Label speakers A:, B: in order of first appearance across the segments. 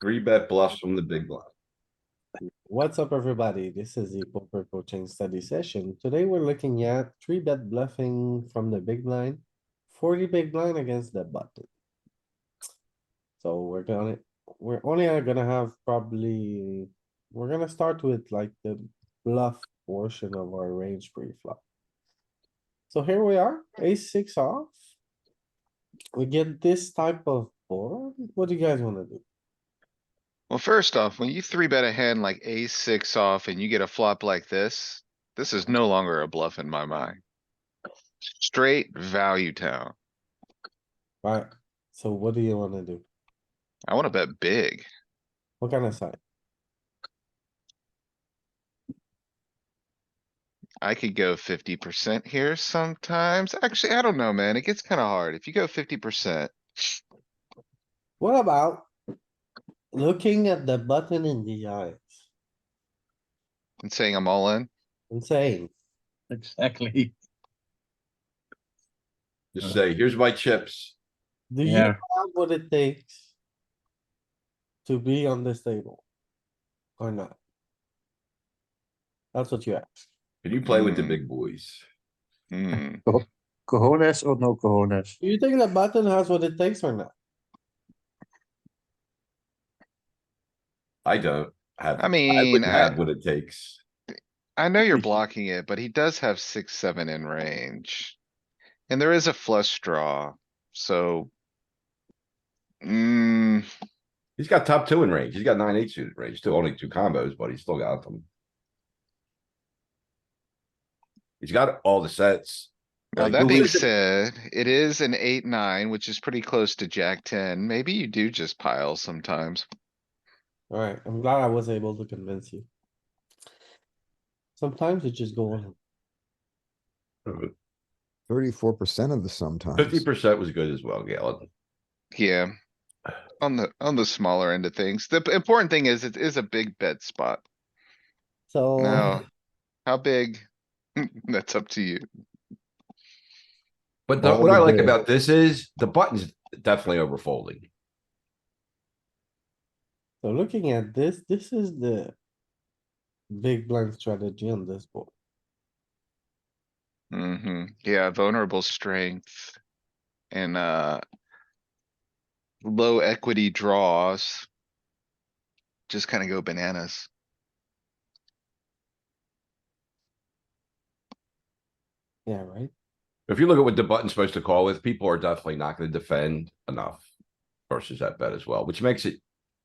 A: Three bet bluffs from the big blind.
B: What's up, everybody? This is the poker coaching study session. Today we're looking at three bet bluffing from the big blind, forty big blind against the button. So we're gonna, we're only gonna have probably, we're gonna start with like the bluff portion of our range pre-flop. So here we are, ace six off. We get this type of board. What do you guys wanna do?
C: Well, first off, when you three bet a hand like ace six off and you get a flop like this, this is no longer a bluff in my mind. Straight value town.
B: Right, so what do you wanna do?
C: I wanna bet big.
B: What kind of side?
C: I could go fifty percent here sometimes. Actually, I don't know, Oh, man. It gets kinda hard. If you go fifty percent,
B: What about looking at the button in the eyes
C: and saying I'm all in,
B: and saying,
D: Exactly.
A: Just say, here's my chips.
B: do you
D: Yeah.
B: have what it takes to be on this table? Or not? That's what you ask.
A: Can you play with the
C: Hmm.
A: big boys?
C: Hmm,
D: Cojones or no cojones?
B: Do you think the button has what it takes or not?
A: I don't have.
C: I
A: I
C: mean,
A: wouldn't
C: I,
A: have what it takes.
C: I know you're blocking it, but he does have six, seven in range. And there is a flush draw, so. Hmm.
A: He's got top two in range. He's got nine, eight suited range, still only two combos, but he's still got them. He's got all the sets.
C: Now,
A: Like,
C: that
A: who
C: being
A: is it?
C: said, it is an eight, nine, which is pretty close to jack ten. Maybe you do just pile sometimes.
B: Alright, I'm glad I was able to convince you. Sometimes you just go on.
E: Thirty-four percent of the sometimes.
A: Fifty percent was good as well, Galen.
C: Yeah. On the, on the smaller end of things. The p- important thing is it is a big bet spot.
B: So,
C: Now, how big? That's up to you.
A: But the-
E: Well,
A: what I like
E: yeah.
A: about this is the button's definitely over folding.
B: so looking at this, this is the big blind strategy on this board.
C: hmm Yeah, vulnerable strength. And, uh. Low equity draws. Just kinda go bananas.
B: Yeah, right?
A: If you look at what the button's supposed to call with, people are definitely not gonna defend enough versus that bet as well, which makes it,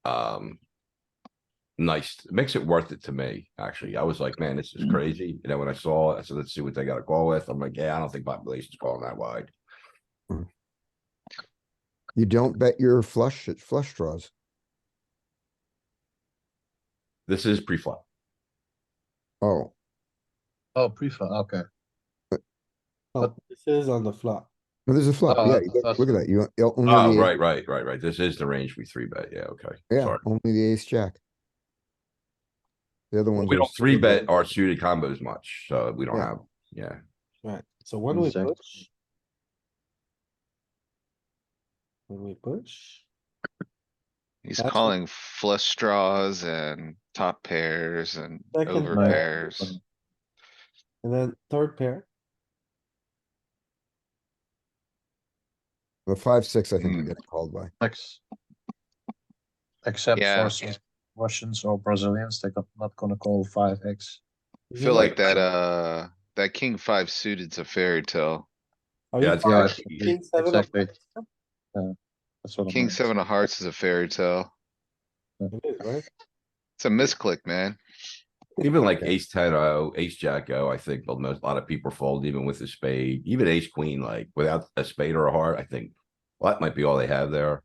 A: um. Nice, It makes it worth it to me, actually. I was like, man, this
E: Mm.
A: is crazy. You know, when I saw, it, I said, let's see what they gotta call with. I'm like, yeah, I don't think population's calling that wide.
E: You don't bet your flush, it's flush draws.
A: This is pre-flop.
E: Oh,
D: Oh, pre-flop, okay.
B: Oh, this is on the flop.
E: no, there's a flop.
D: Uh,
E: Yeah, you
D: uh,
E: got- look at that. You, you only.
A: Oh,
E: the-
A: right, right, right, right. This is the range we three bet. Yeah, okay.
E: Yeah,
A: Sorry.
E: only the ace jack. The other one.
A: We don't three bet our suited combos much, so we don't
E: Yeah.
A: have, yeah.
B: Right, so when we
D: Exactly.
B: push. When we push,
C: He's
B: That's what-
C: calling flush draws and top pairs and
B: Second
C: over
D: pair.
C: pairs.
B: and then third pair,
E: The five, six, I think
A: Hmm.
E: we're
C: Mm.
E: getting called by.
D: Ex- Except
C: Yeah.
D: for some Russians or Brazilians, they're not gonna call five X.
C: Feel like that, uh, that king five suited's a fairy tale.
B: are
A: Yeah,
B: you
A: it's-
D: yeah,
B: fine?
D: it's-
B: King seven of
D: exactly.
B: hearts?
D: That's what I
C: King
D: meant.
C: seven of hearts is a fairy tale.
B: It is, right?
C: It's a misclick, man.
A: Even like ace ten O, ace jack O, I think a most, a lot of people fold even with a spade, even ace queen, like without a spade or a heart, I think. Well, that might be all they have there.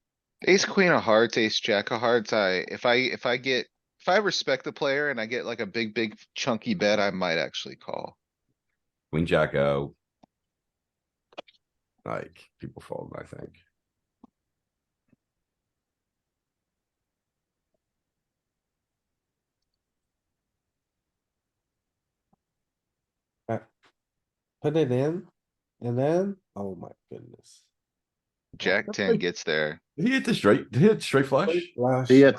C: Ace queen of hearts, ace jack of hearts. I, if I, if I get, if I respect the player and I get like a big, big chunky bet, I might actually call.
A: Queen jack O. Like, people fold, I think.
B: Put it in, and then, oh my goodness.
C: Jack ten gets there.
A: Did He hit the straight, did he hit straight flush?
B: Flash.
D: Be it.